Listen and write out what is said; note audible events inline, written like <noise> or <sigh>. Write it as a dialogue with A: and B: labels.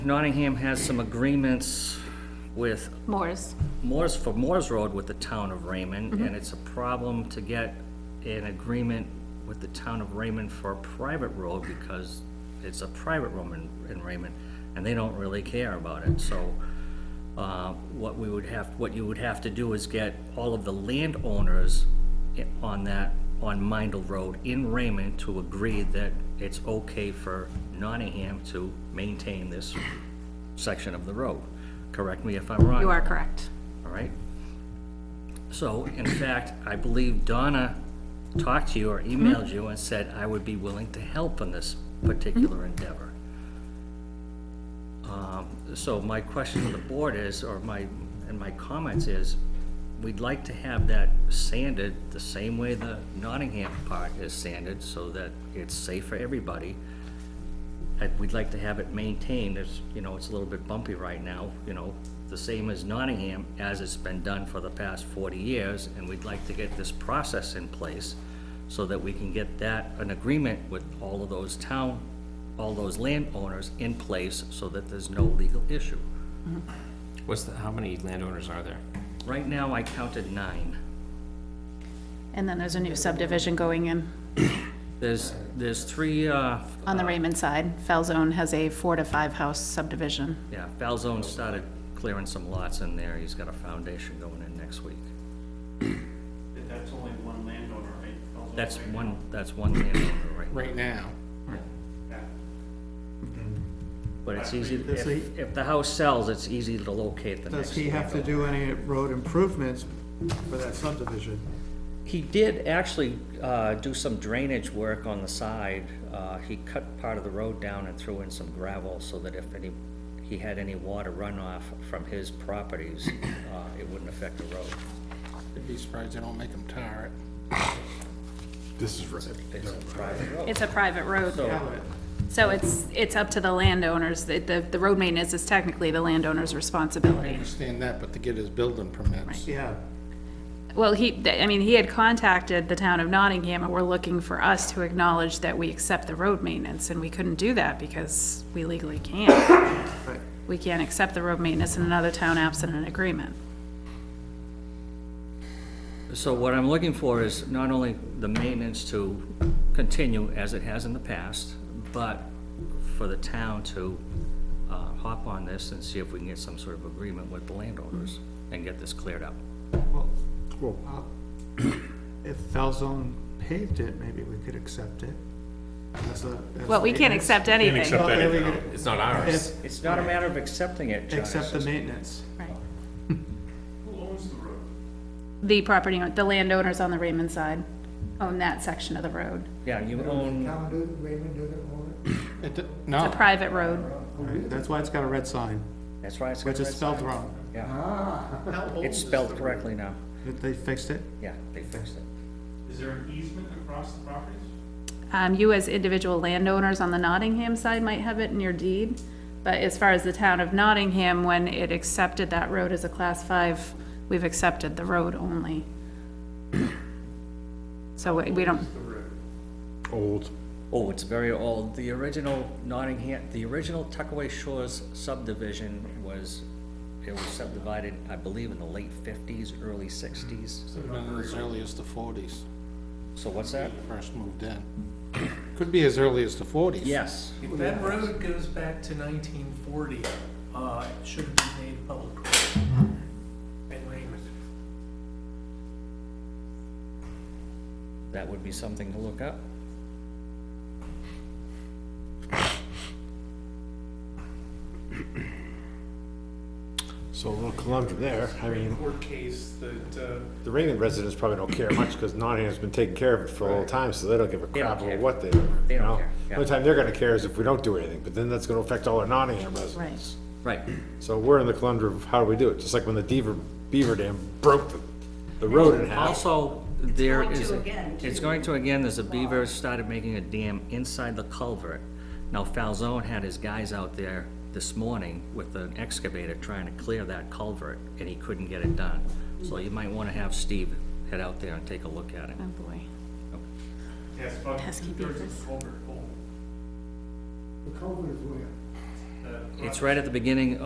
A: Nottingham has some agreements with
B: Moore's.
A: Moore's, for Moore's Road with the town of Raymond,
B: Mm-hmm.
A: and it's a problem to get an agreement with the town of Raymond for a private road, because it's a private road in, in Raymond, and they don't really care about it, so, uh, what we would have, what you would have to do is get all of the landowners i- on that, on Mindle Road in Raymond to agree that it's okay for Nottingham to maintain this section of the road. Correct me if I'm wrong.
B: You are correct.
A: All right? So, in fact, I believe Donna talked to you or emailed you and said, I would be willing to help in this particular endeavor. Um, So my question to the board is, or my, and my comments is, we'd like to have that sanded the same way the Nottingham part is sanded, so that it's safe for everybody. And we'd like to have it maintained, it's, you know, it's a little bit bumpy right now, you know, the same as Nottingham, as it's been done for the past forty years, and we'd like to get this process in place so that we can get that, an agreement with all of those town, all those landowners in place so that there's no legal issue.
C: What's the, how many landowners are there?
A: Right now, I counted nine.
B: And then there's a new subdivision going in
A: There's, there's three, uh,
B: on the Raymond side. Falzone has a four to five house subdivision.
A: yeah, Falzone started clearing some lots in there, he's got a foundation going in next week.
D: That- That's only one landowner, right? Those are
A: That's
D: only-
A: one, that's one landowner right now.
E: right now.
D: Yeah.
A: But it's easy,
E: Does
A: if, if the house sells, it's easy to locate the next.
E: Does he have to
A: landowner.
E: do any road improvements for that subdivision?
A: He did actually, uh, do some drainage work on the side. Uh, he cut part of the road down and threw in some gravel so that if any, he had any water runoff from his properties, uh, it wouldn't affect the road.
E: I'd be surprised they don't make him tar it.
F: This is right.
A: It's a private road.
B: It's a private road,
A: So,
B: so it's, it's up to the landowners. The, the- the road maintenance is technically the landowner's responsibility.
G: understand that, but to get his building permits.
E: Yeah,
B: Well, he, th- I mean, he had contacted the town of Nottingham and were looking for us to acknowledge that we accept the road maintenance, and we couldn't do that because we legally can't.
E: right.
B: We can't accept the road maintenance in another town absent an agreement.
A: so what I'm looking for is not only the maintenance to continue as it has in the past, but for the town to, uh, hop on this and see if we can get some sort of agreement with the landowners and get this cleared up.
E: Well, uh,
F: Well,
E: if Falzone paved it, maybe we could accept it. As a- as
B: Well, we can't
E: maintenance.
B: accept anything.
E: Well, yeah, we could
C: It's not ours.
E: if-
A: It's not a matter of accepting it, John. It's
E: Accept the
A: just-
E: maintenance.
B: Right.
D: Who owns the road?
B: The property, own- the landowners on the Raymond side own that section of the road,
A: Yeah, you own,
H: Town do, Raymond do it,
G: It d-
B: a
D: Oh.
G: No,
B: private road.
E: Right, That's why it's got a red sign,
A: that's right. it's got
E: which is
A: red
E: spelled
A: sign.
E: wrong.
A: Yeah, it's spelled correctly now.
E: They fixed it.
A: Yeah, they fixed it.
D: Is there an easement across the properties?
B: Um, you as individual landowners on the Nottingham side might have it in your deed, but as far as the town of Nottingham, when it accepted that road as a class five, we've accepted the road only. <clears throat> So we we don't,
F: old.
A: Oh, it's very old. The original Nottingham, the original Tuckaway Shores subdivision was, it was subdivided, I believe, in the late fifties, early sixties.
G: been as early as the forties,
A: So what's that?
G: first moved in. Could be as early as the forties.
A: Yes,
I: If that road goes back to nineteen forty, uh, it should have been made public. And Raymond.
A: that would be something to look up.
F: So a little conundrum there. I mean,
I: Court case that, uh,
F: the Raymond residents probably don't care much because Nottingham's been taking care of it for a long time, so they don't give a
A: don't
F: crap
A: care.
F: about what they do.
A: They
F: you
A: don't
F: know?
A: care, yeah.
F: The only time they're gonna care is if we don't do anything, but then that's gonna affect all our Nottingham residents.
A: Right.
F: So we're in the conundrum of how do we do it? Just like when the Deaver, Beaver Dam broke the, the road in half.
A: Also, there is. a- It's going to again, there's a beaver started making a dam inside the culvert. Now Falzone had his guys out there this morning with an excavator trying to clear that culvert, and he couldn't get it done. So you might wanna have Steve head out there and take a look at it.
B: oh boy.
D: Yes, about
B: Pesky
D: two-thirds of
B: beavers.
D: Culvert Bowl.
H: the culvert is where?
D: The
A: it's right at the beginning